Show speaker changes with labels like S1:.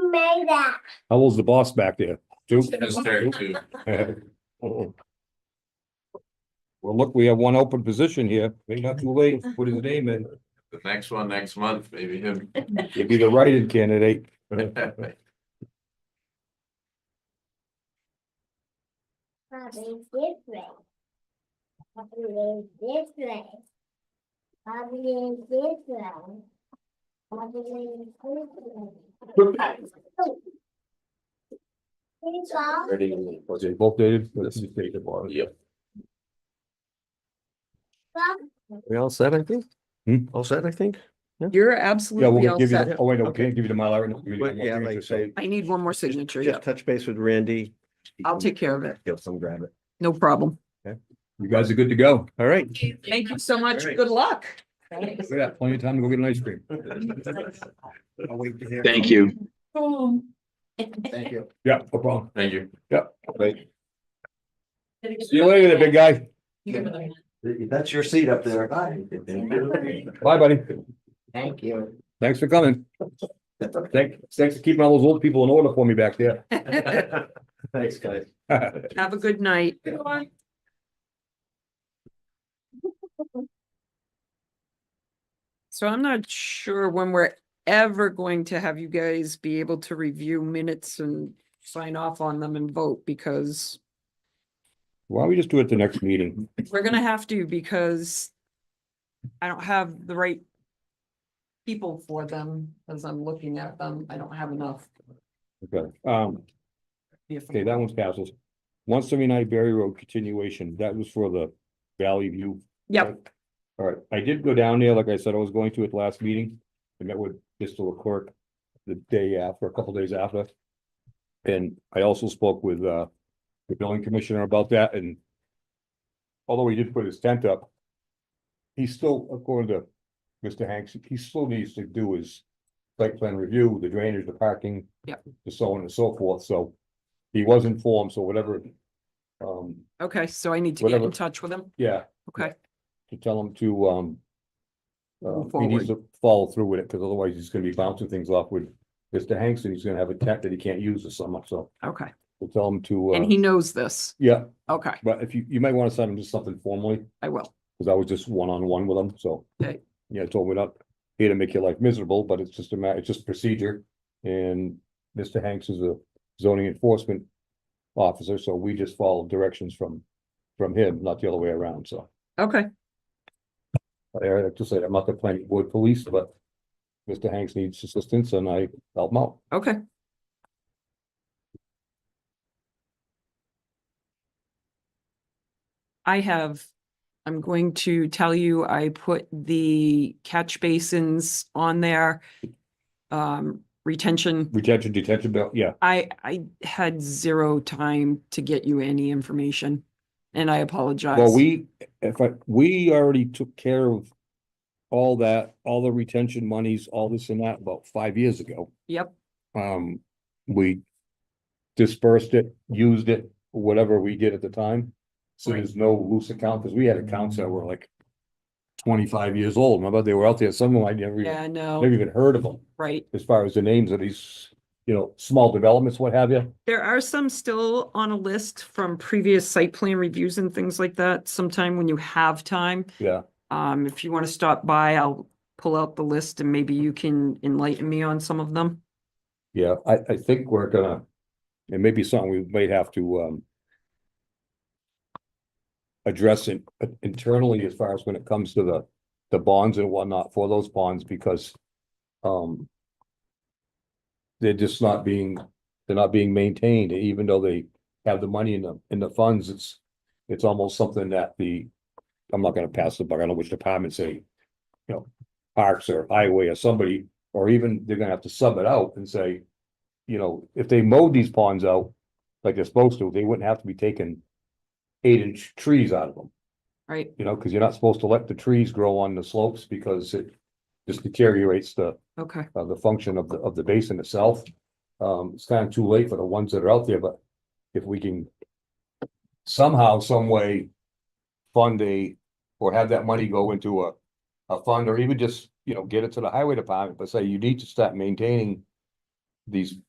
S1: made that.
S2: How old's the boss back there? Two?
S3: It's there too.
S2: Well, look, we have one open position here. Maybe not too late. Put his name in.
S3: The next one, next month, maybe him.
S2: He'd be the write-in candidate.
S1: Probably different. Probably different. Probably different. Probably different. It's all
S2: Was it both dated? Yep.
S1: from
S4: We all set, I think?
S2: Hmm?
S4: All set, I think?
S5: You're
S2: Yeah,
S5: absolutely
S2: we'll
S5: all
S2: give you, the-
S5: set.
S2: oh, wait, no, we
S4: Okay.
S2: can't give you the Mylar. no, we-
S4: But yeah,
S2: we'll
S4: like
S2: give
S4: I
S2: you
S4: say,
S5: I need one more signature. Yeah,
S4: just touch base with Randy.
S5: I'll take care of it.
S4: He'll come grab it.
S5: No problem.
S2: You guys are good to go.
S4: All right.
S5: Thank you so much.
S4: Great.
S5: Good luck.
S2: We got plenty of time to go get an ice cream.
S4: I'll wait to hear.
S6: Thank you.
S4: Thank you.
S2: Yeah, no problem.
S3: Thank you.
S2: Great. See you later, big guy.
S4: That's your seat up there.
S2: Bye, buddy.
S4: Thank you.
S2: Thanks for coming. Thanks, thanks for keeping all those old people in order for me back there.
S4: Thanks, guys.
S5: Have a good night. So I'm not sure when we're ever going to have you guys be able to review minutes and sign off on them and vote because
S2: Why don't we just do it the next meeting?
S5: we're gonna have to because I don't have the right people for them as I'm looking at them. I don't have enough.
S2: Okay, um,
S5: if-
S2: okay, that one's passes. One seventy-nine Berry Road continuation, that was for the Valley View
S5: Yep,
S2: All right, I did go down there, like I said, I was going to at the last meeting. I met with Mr. Leclerc the day after, a couple days after. And I also spoke with uh the building commissioner about that and although he did put his tent up, he still, according to Mr. Hanks, he still needs to do his site plan review, the drainage, the parking.
S5: Yep.
S2: The so on and so forth, so he was informed, so whatever. Um,
S5: okay, so I need to get in
S2: Whatever.
S5: touch with them.
S2: yeah,
S5: Okay,
S2: to tell him to, um. Uh,
S5: Move
S2: he needs to follow through with it, because otherwise he's gonna be bouncing things off with Mr. Hanks, and he's gonna have a tech that he can't use or something, so
S5: okay.
S2: we'll tell him to,
S5: And
S2: uh,
S5: he knows this.
S2: yeah,
S5: Okay,
S2: but if you, you might wanna send him just something formally,
S5: I will.
S2: because I was just one-on-one with him, so.
S5: Okay.
S2: Yeah, I told him we're not here to make your life miserable, but it's just a matter, it's just procedure, and Mr. Hanks is a zoning enforcement officer, so we just follow directions from, from him, not the other way around, so.
S5: Okay,
S2: Eric, like to say, I'm not the planning board police, but Mr. Hanks needs assistance and I help him out.
S5: okay. I have, I'm going to tell you, I put the catch basins on there. Um, retention,
S2: Retention, detention, bill, yeah,
S5: I, I had zero time to get you any information and I apologize.
S2: well, we, if I, we already took care of all that, all the retention monies, all this and that about five years ago.
S5: Yep,
S2: Um, we dispersed it, used it, whatever we did at the time. So there's no loose account, because we had accounts that were like twenty-five years old, remember, they were out there, some of them I never, even-
S5: yeah,
S2: never
S5: no,
S2: even heard of them.
S5: right.
S2: as far as the names of these, you know, small developments, what have you.
S5: There are some still on a list from previous site plan reviews and things like that, sometime when you have time.
S2: Yeah.
S5: Um, if you want to stop by, I'll pull out the list and maybe you can enlighten me on some of them.
S2: Yeah, I, I think we're gonna, it may be something we might have to, um, address it internally as far as when it comes to the, the bonds and whatnot for those bonds, because, um, they're just not being, they're not being maintained, even though they have the money in the, in the funds, it's, it's almost something that the, I'm not gonna pass the buck, I don't know which department say, you know, parks or highway or somebody, or even they're gonna have to sub it out and say, you know, if they mowed these ponds out like they're supposed to, they wouldn't have to be taking eight inch trees out of them,
S5: Right,
S2: you know, because you're not supposed to let the trees grow on the slopes because it just deteriorates the,
S5: okay,
S2: uh, the function of the, of the basin itself. Um, it's kind of too late for the ones that are out there, but if we can somehow, some way fund a, or have that money go into a, a fund, or even just, you know, get it to the highway department, but say you need to start maintaining these